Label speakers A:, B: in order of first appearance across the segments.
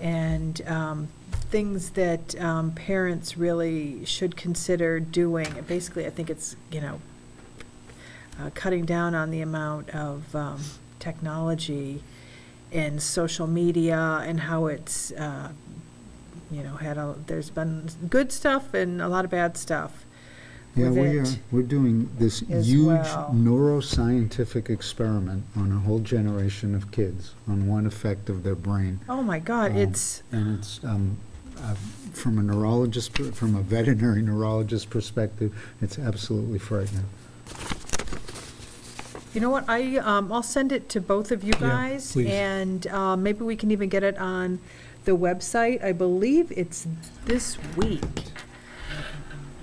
A: and um, things that um, parents really should consider doing. And Basically, I think it's, you know, uh, cutting down on the amount of um, technology and social media and how it's, uh, you know, had a, there's been good stuff and a lot of bad stuff.
B: Yeah,
A: with
B: we are.
A: it.
B: We're doing this
A: as
B: huge
A: well.
B: neuroscientific experiment on a whole generation of kids, on one effect of their brain.
A: Oh, my God,
B: Um,
A: it's,
B: And it's, um, uh, from a neurologist, per- from a veterinary neurologist perspective, it's absolutely frightening.
A: you know what, I, um, I'll send it to both of you
B: Yeah,
A: guys.
B: please.
A: And uh, maybe we can even get it on the website. I believe it's this week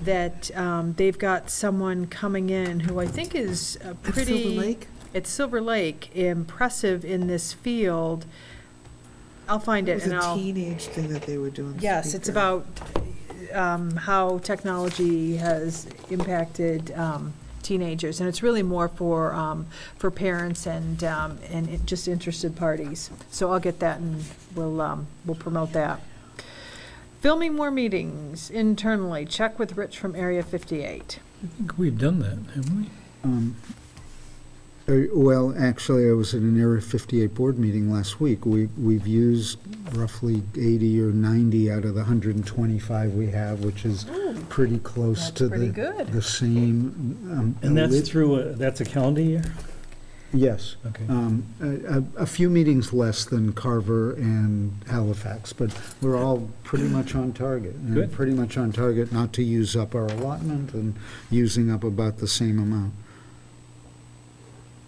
A: that um, they've got someone coming in who I think is a pretty. at Silver Lake, impressive in this field. I'll find
C: It
A: it
C: was
A: and
C: a
A: I'll,
C: teenage thing that they were doing.
A: yes, it's
C: speaker.
A: about um, how technology has impacted um, teenagers. And it's really more for, um, for parents and, um, and it- just interested parties. So I'll get that and we'll, um, we'll promote that. Filming more meetings internally, check with Rich from Area 58.
D: I think we've done that, haven't we?
B: Um, uh, Well, actually, I was at an Area 58 board meeting last week. We- We've used roughly 80 or 90 out of the 125 we have, which is pretty close
A: That's
B: to the...
A: pretty good.
B: The same... um,
D: And
B: lit-
D: that's through, a- that's a calendar year? Uh,
B: Yes.
D: Okay.
B: Um, A a- a few meetings less than Carver and Halifax, but we're all pretty much on target. and
D: Good.
B: Pretty much on target not to use up our allotment and using up about the same amount.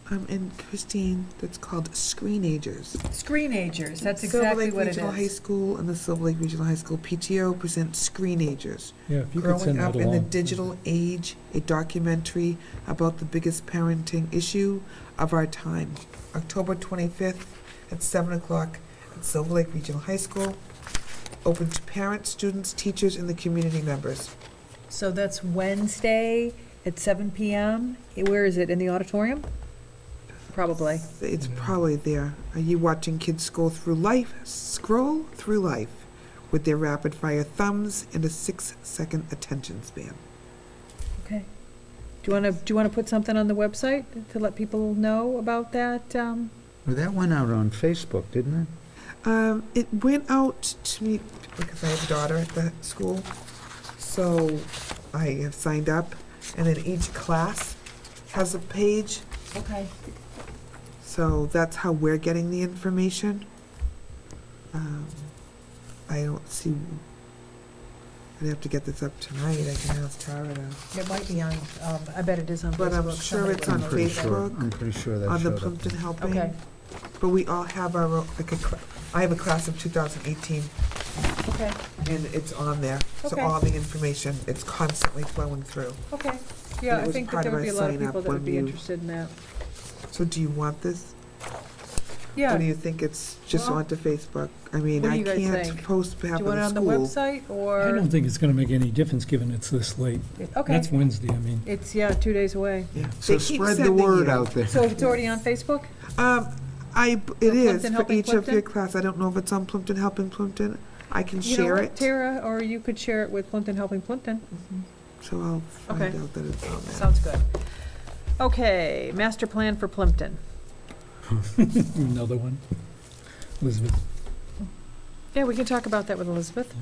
C: Um, and Christine, that's called Screenagers.
A: Screenagers, that's
C: Silver
A: exactly
C: Lake
A: what it
C: Regional High
A: is.
C: School and the Silver Lake Regional High School PTO presents Screenagers.
D: Yeah, if you could
C: Growing
D: send that
C: up in the
D: along.
C: digital age, a documentary about the biggest parenting issue of our time. October 25th at 7 o'clock at Silver Lake Regional High School. Open to parents, students, teachers, and the community members.
A: So that's Wednesday at seven PM. Eh, Where is it? In the auditorium? Probably.
C: It's probably there. Are you watching kids scroll through life, scroll through life with their rapid fire thumbs and a six second attention span?
A: Okay. Do you want to, do you want to put something on the website to let people know about that? um,
B: Well, that went out on Facebook, didn't it?
C: Um, it went out to me because I have a daughter at that school. So I have signed up, and then each class has a page.
A: Okay.
C: So that's how we're getting the information. Um, I don't see. I'd have to get this up tonight. I can ask Tara to.
A: It might be on, um, I bet it is on Facebook.
C: But I'm sure
A: Somebody
C: it's
A: will
C: on
A: know.
B: I'm pretty sure. I'm
C: Facebook,
B: pretty sure that
C: on the
B: showed up.
C: Plimpton Helping.
A: Okay,
C: But we all have our, own- like a, cl- I have a class of 2018,
A: okay,
C: and it's on there. So
A: Okay.
C: all the information, it's constantly flowing through.
A: okay. Yeah,
C: And it
A: I
C: was
A: think that
C: part
A: there
C: of
A: would be a
C: our
A: lot of
C: sign up
A: people that would
C: when
A: be
C: you-
A: interested in that.
C: So do you want this? Or do
A: Yeah.
C: you think it's just
A: Well,
C: onto Facebook? I mean,
A: what do
C: I
A: you guys
C: can't
A: think?
C: post
A: Do
C: half
A: you
C: of
A: want it
C: the
A: on the
C: school.
A: website
D: I
A: or?
D: don't think it's going to make any difference, given it's this late.
A: Okay.
D: That's Wednesday, I mean.
A: It's, yeah, two days away.
C: Yeah.
B: So
C: They keep
B: spread the
C: sending
B: word
C: you.
B: out there.
A: So it's already on Facebook?
C: Um, I, b- it
A: For
C: is,
A: Plimpton
C: for
A: Helping
C: each of your
A: Plimpton?
C: class. I don't know if it's on Plimpton Helping Plimpton. I can
A: You know
C: share
A: what,
C: it.
A: Tara, or you could share it with Plimpton Helping Plimpton.
C: So I'll find
A: Okay.
C: out that it's on there.
A: Sounds good. Okay, master plan for Plimpton.
D: Another one. Elizabeth,
A: Yeah, we can talk about that with Elizabeth.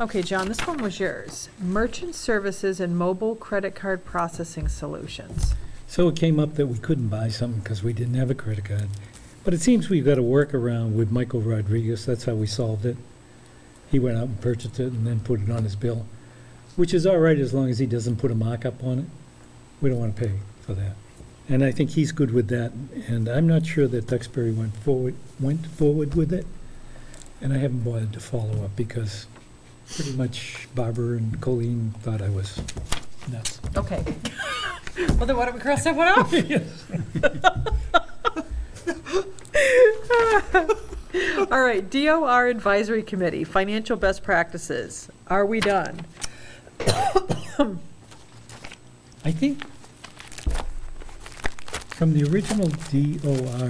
A: Okay, John, this one was yours. Merchant services and mobile credit card processing solutions.
D: So it came up that we couldn't buy something because we didn't have a credit card. But it seems we've got a workaround with Michael Rodriguez, that's how we solved it. He went out and purchased it and then put it on his bill, which is all right as long as he doesn't put a markup on it. We don't want to pay for that. And I think he's good with that, and I'm not sure that Duxbury went forward, went forward with it. And I haven't bothered to follow up because pretty much Barbara and Colleen thought I was nuts.
A: Okay. Well, then why don't we cross that one off? All right, DOR Advisory Committee, financial best practices. Are we done?
D: I think from the original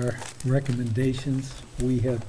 D: DOR recommendations, we have